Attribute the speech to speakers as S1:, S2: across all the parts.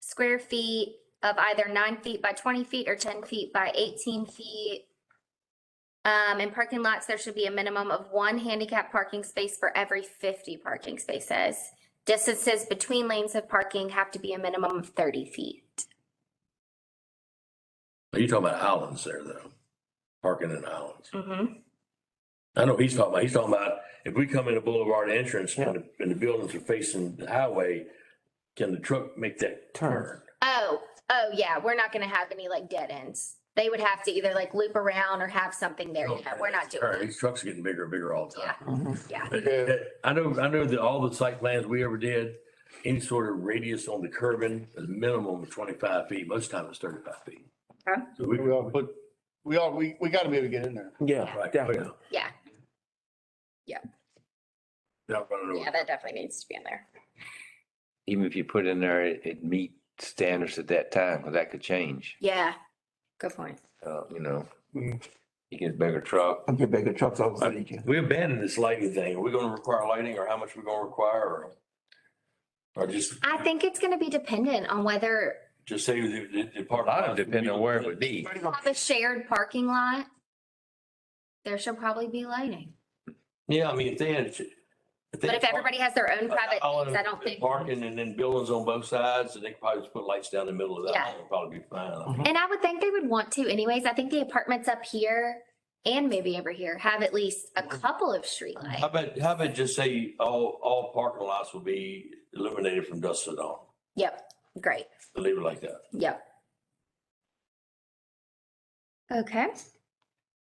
S1: square feet of either nine feet by twenty feet or ten feet by eighteen feet. Um, in parking lots, there should be a minimum of one handicap parking space for every fifty parking spaces. Distances between lanes of parking have to be a minimum of thirty feet.
S2: You're talking about islands there though, parking in islands.
S1: Mhm.
S2: I know he's talking about, he's talking about if we come in a boulevard entrance and the, and the buildings are facing the highway, can the truck make that turn?
S1: Oh, oh, yeah, we're not gonna have any like dead ends. They would have to either like loop around or have something there.
S2: Oh,
S1: Yeah, we're not
S2: All right,
S1: doing
S2: These trucks are getting bigger and bigger all the time.
S1: that. Yeah, yeah.
S2: Uh, I know, I know that all the site plans we ever did, any sort of radius on the curbing is minimum of twenty-five feet. Most times it's thirty-five feet.
S1: Okay.
S2: So we,
S3: We all put, we all, we, we gotta be able to get in there.
S4: Yeah,
S2: right,
S4: definitely.
S1: Yeah. Yeah.
S2: Not running
S1: Yeah,
S2: over.
S1: that definitely needs to be in there.
S5: even if you put in there, it- it meet standards at that time, because that could change,
S1: Yeah, good point.
S5: uh, you know.
S4: Mm.
S5: You get a bigger truck.
S4: I'm getting bigger trucks all the time.
S2: We abandoned this lighting thing. Are we gonna require lighting or how much we are gonna require or? Or just,
S1: I think it's gonna be dependent on whether
S2: just say the, the, the
S5: A
S2: part.
S5: lot of depending on where it would be.
S1: you have a shared parking lot. There should probably be lighting,
S2: Yeah, I mean, if they had. if they
S1: but if
S2: had-
S1: everybody has their own private
S2: All
S1: things,
S2: in
S1: I don't think.
S2: Parking and then buildings on both sides, and they could probably just put lights down the middle of that,
S1: Yeah.
S2: That would probably be fine.
S5: Mm-hmm.
S2: I mean,
S1: And I would think they would want to anyways. I think the apartments up here and maybe over here have at least a couple of
S2: How
S1: streetlights.
S2: about, how about just say all, all parking lots will be illuminated from dusk to dawn,
S1: Yep, great,
S2: leave it like that.
S1: yep. Okay.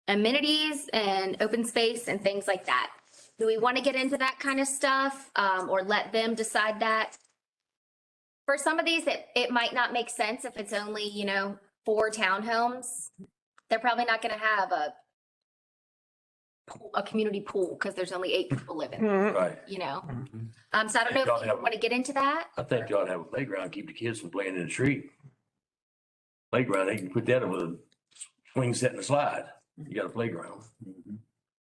S1: Amenities and open space and things like that. Do we want to get into that kind of stuff, um, or let them decide that? For some of these, it, it might not make sense if it's only, you know, four townhomes. They're probably not gonna have a pool- a community pool, because there's only eight people living,
S2: Right.
S1: you know? Um, so I don't know
S2: Y'all
S1: if you
S2: have-
S1: want to get into that.
S2: I think y'all have a playground, keep the kids from playing in the street. Playground, they can put that with a swing set and a slide. You got a playground.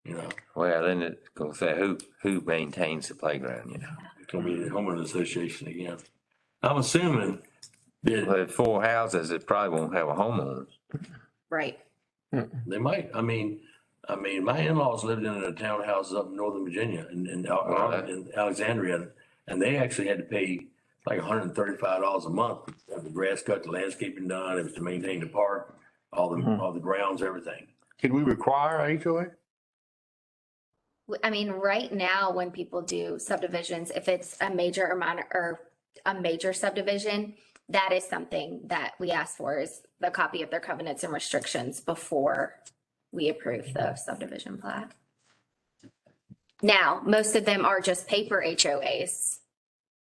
S2: You know,
S5: Well, then it's gonna say who, who maintains the playground, you know?
S2: it's gonna be the homeowners association again. I'm assuming that
S5: But four houses, it probably won't have a homeowner.
S1: Right.
S2: they might, I mean, I mean, my in-laws lived in a townhouse up in Northern Virginia in, in Al-
S5: Right.
S2: in Alexandria. And they actually had to pay like hundred and thirty-five dollars a month, to have the grass cut, the landscaping done, it was to maintain the park, all the,
S4: Mhm.
S2: all the grounds, everything.
S3: Can we require a HOA?
S1: W- I mean, right now, when people do subdivisions, if it's a major or minor or a major subdivision, that is something that we ask for is the copy of their covenants and restrictions before we approve the subdivision plat. Now, most of them are just paper HOAs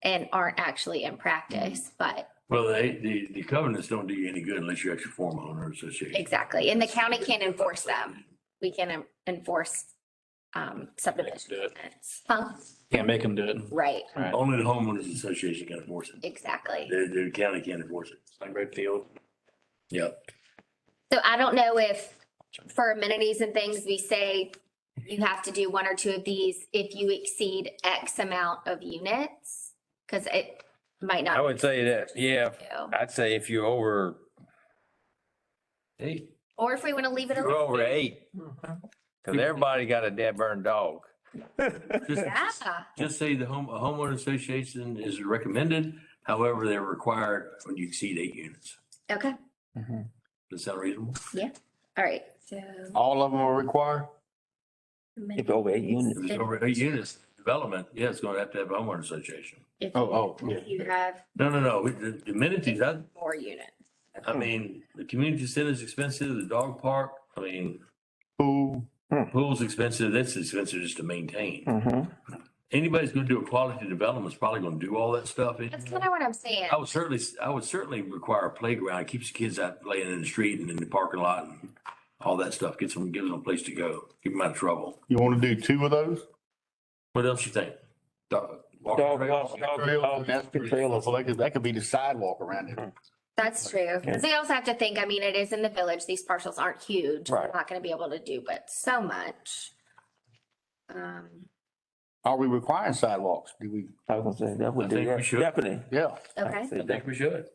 S1: and aren't actually in practice, but
S2: Well, they, the, the covenants don't do you any good unless you actually form a homeowner association.
S1: exactly. And the county can't enforce them. We can en- enforce um subdivision. covenants. Huh?
S6: Can't make them do it.
S1: Right,
S2: Only the homeowners association can enforce it.
S1: exactly.
S2: The, the county can't enforce it.
S6: Like Redfield.
S2: Yep.
S1: So I don't know if for amenities and things, we say you have to do one or two of these if you exceed X amount of units. Cause it might
S5: I
S1: not.
S5: would say that, yeah,
S1: do.
S5: I'd say if you're over eight,
S1: Or if we want to leave it
S5: you're
S1: alone.
S5: over eight, because everybody got a dead burn dog.
S2: Just,
S1: Yeah,
S2: just say the home, a homeowner association is recommended. However, they're required when you exceed eight units.
S1: okay,
S2: Does that sound reasonable?
S1: all right, so.
S3: All of them are required?
S4: If over eight units.
S2: If it's over eight units, development, yeah, it's gonna have to have a homeowner association.
S1: If
S3: Oh, oh, yeah.
S1: if you have
S2: No, no, no, we- the the amenities, I,
S1: more units.
S2: I mean, the community center is expensive, the dog park, I mean,
S3: Pool,
S2: pool's expensive, that's expensive just to maintain.
S4: Mhm.
S2: anybody's gonna do a quality development is probably gonna do all that stuff. It-
S1: That's kind of what I'm saying.
S2: I would certainly, I would certainly require a playground. It keeps the kids out playing in the street and in the parking lot and all that stuff. Gets them, gives them a place to go. Keep them out of trouble.
S3: you wanna do two of those?
S2: What else you think? Dog walk-
S4: Dog walk- dog walk-
S3: That's the trailer, so that could, that could be the sidewalk around it.
S1: That's true. 'Cause
S4: Yeah.
S1: They also have to think, I mean, it is in the village. These parcels aren't huge. We're
S4: Right.
S1: Not going to be able to do, but so much. Um,
S3: Are we requiring sidewalks? Do we,
S4: I was gonna say, that would
S2: I
S4: do
S2: think we
S4: that,
S2: should.
S4: definitely.
S3: yeah.
S4: I
S1: okay.
S4: would say
S2: I think we should.